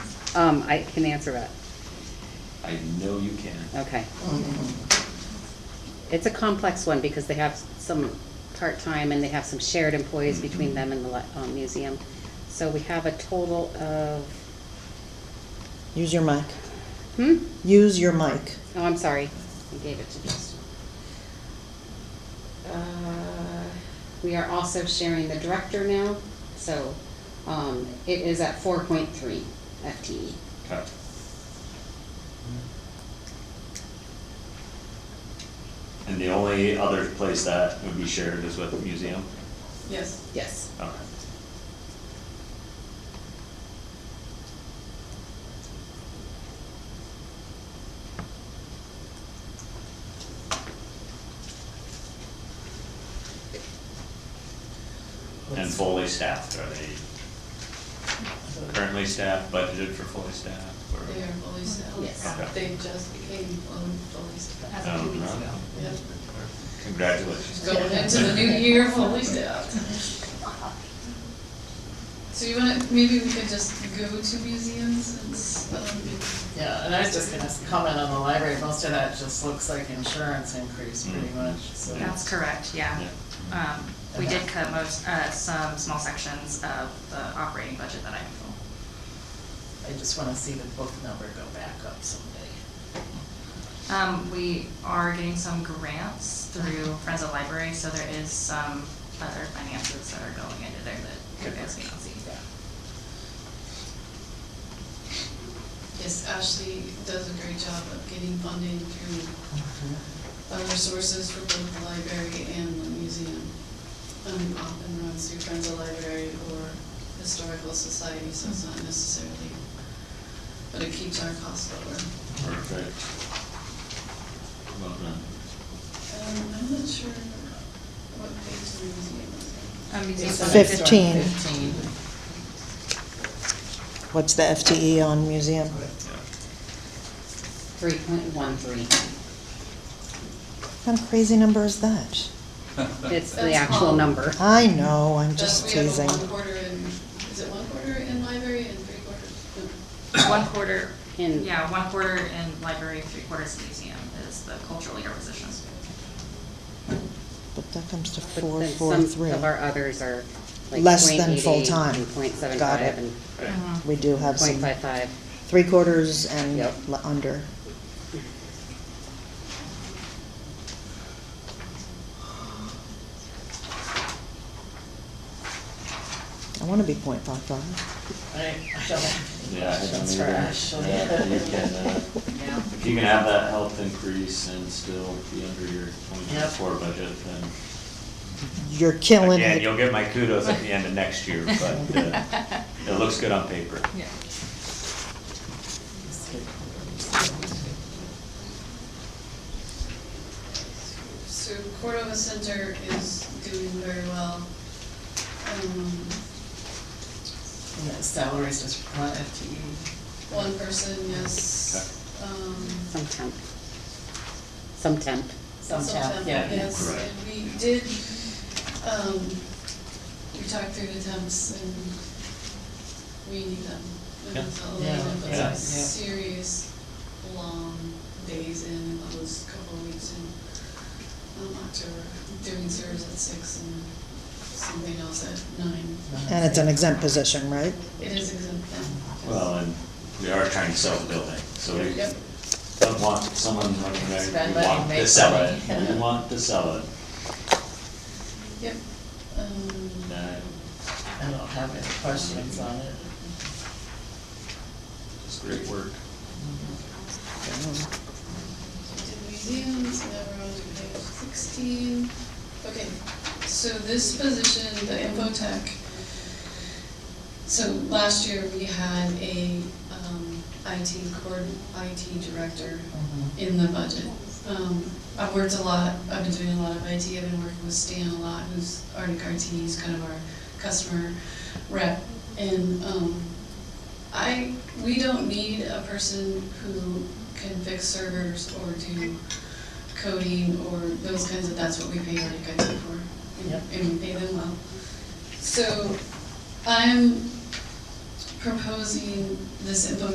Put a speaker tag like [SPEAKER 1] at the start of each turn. [SPEAKER 1] Um, I can answer that,
[SPEAKER 2] I know you can.
[SPEAKER 1] okay. It's a complex one because they have some part-time and they have some shared employees between them and the li- um, museum. So we have a total of,
[SPEAKER 3] Use your mic.
[SPEAKER 1] hmm?
[SPEAKER 3] Use your mic.
[SPEAKER 1] Oh, I'm sorry, I gave it to Justin. Uh, We are also sharing the director now, so um, it is at 4.3 FTE.
[SPEAKER 2] Okay. And the only other place that would be shared is with the museum?
[SPEAKER 4] Yes.
[SPEAKER 1] Yes.
[SPEAKER 2] Okay. And fully staffed, are they currently staffed, budgeted for fully staffed, or? Um,
[SPEAKER 4] They are fully staffed.
[SPEAKER 1] Yes.
[SPEAKER 4] They just became um, fully staffed.
[SPEAKER 2] Oh, no.
[SPEAKER 4] Yep.
[SPEAKER 2] Congratulations.
[SPEAKER 4] Going into the new year fully staffed. So you wanna, maybe we could just go to museums and, s- um,
[SPEAKER 5] Yeah, and I was just gonna comment on the library, most of that just looks like insurance increase pretty
[SPEAKER 2] Mm.
[SPEAKER 5] much, so.
[SPEAKER 6] That's correct, yeah.
[SPEAKER 2] Yeah.
[SPEAKER 6] Um, we did cut most, uh, some small sections of the operating budget that I am full.
[SPEAKER 5] I just wanna see the book number go back up someday.
[SPEAKER 6] Um, we are getting some grants through Friends of Library, so there is some other finances that are going into there that you guys may not see.
[SPEAKER 4] yes, Ashley does a great job of getting funding through other sources for both the library and the museum. Um, often runs through Friends of Library or Historical Society, so it's not necessarily, but it keeps our costs lower.
[SPEAKER 2] Perfect. Well done.
[SPEAKER 4] Um, I'm not sure what page the museum is on.
[SPEAKER 6] Um, museum
[SPEAKER 5] It's
[SPEAKER 6] budget-
[SPEAKER 5] next one,
[SPEAKER 3] Fifteen.
[SPEAKER 5] Fifteen.
[SPEAKER 3] What's the FTE on museum?
[SPEAKER 1] 3.13.
[SPEAKER 3] What kind of crazy number is that?
[SPEAKER 1] It's the
[SPEAKER 4] That's
[SPEAKER 1] actual
[SPEAKER 4] all.
[SPEAKER 1] number.
[SPEAKER 3] I know, I'm
[SPEAKER 4] Just
[SPEAKER 3] just
[SPEAKER 4] Uh, we have a
[SPEAKER 3] teasing.
[SPEAKER 4] one quarter in, is it one quarter in library and three quarters? No.
[SPEAKER 6] One quarter,
[SPEAKER 1] In-
[SPEAKER 6] yeah, one quarter in library, three quarters in museum is the cultural leader position.
[SPEAKER 3] But that comes to
[SPEAKER 1] But
[SPEAKER 3] four,
[SPEAKER 1] then
[SPEAKER 3] four,
[SPEAKER 1] some
[SPEAKER 3] three.
[SPEAKER 1] of our others are like
[SPEAKER 3] Less
[SPEAKER 1] .88
[SPEAKER 3] than full-time.
[SPEAKER 1] and
[SPEAKER 3] Got it.
[SPEAKER 1] .75 and
[SPEAKER 6] Mhm.
[SPEAKER 3] We do have some
[SPEAKER 1] .55.
[SPEAKER 3] three quarters and
[SPEAKER 1] Yep.
[SPEAKER 3] le- under. I wanna be point five five.
[SPEAKER 5] I, I don't have any
[SPEAKER 2] Yeah, I don't
[SPEAKER 5] questions for
[SPEAKER 2] either. Yeah, you
[SPEAKER 5] Ashley.
[SPEAKER 2] can, uh,
[SPEAKER 5] Yeah.
[SPEAKER 2] if you can have that health increase and still be under your twenty twenty-four budget, then.
[SPEAKER 3] You're killing it.
[SPEAKER 2] Again, you'll get my kudos at the end of next year, but, uh, it looks good on paper.
[SPEAKER 6] Yeah.
[SPEAKER 4] So Cordova Center is doing very well. Um,
[SPEAKER 5] And that salary's just one FTE.
[SPEAKER 4] one person, yes. Um,
[SPEAKER 1] Some temp. Some temp.
[SPEAKER 5] Some tap,
[SPEAKER 4] temp,
[SPEAKER 5] yeah.
[SPEAKER 4] Yes,
[SPEAKER 2] Right.
[SPEAKER 4] and we did, um, we talked through the temps and we need them. And
[SPEAKER 2] Yeah.
[SPEAKER 4] it's a
[SPEAKER 5] Yeah,
[SPEAKER 4] lot of,
[SPEAKER 2] yeah.
[SPEAKER 4] like, serious, long days in those couple of weeks in, um, October, doing service at six and something else at nine.
[SPEAKER 3] And it's an exempt position, right?
[SPEAKER 4] It is exempt then.
[SPEAKER 2] Well, and we are trying to sell the building, so we
[SPEAKER 4] Yep.
[SPEAKER 2] don't want someone running there,
[SPEAKER 5] Spend
[SPEAKER 2] we
[SPEAKER 5] money,
[SPEAKER 2] want to
[SPEAKER 5] make
[SPEAKER 2] sell
[SPEAKER 5] money.
[SPEAKER 2] it, we want to sell it.
[SPEAKER 4] Yep. Um,
[SPEAKER 2] And, uh,
[SPEAKER 5] I don't have any questions on it.
[SPEAKER 2] It's great work.
[SPEAKER 4] Did museums, now we're on to page sixteen. Okay, so this position, the info tech. So last year we had a, um, IT cord, IT director in the budget. Um, I've worked a lot, I've been doing a lot of IT, I've been working with Stan a lot, who's Arctic RT, he's kind of our customer rep. And, um, I, we don't need a person who can fix servers or do coding or those kinds of, that's what we pay our guys for. and-
[SPEAKER 5] Yep.
[SPEAKER 4] And we pay them well. So I'm proposing this info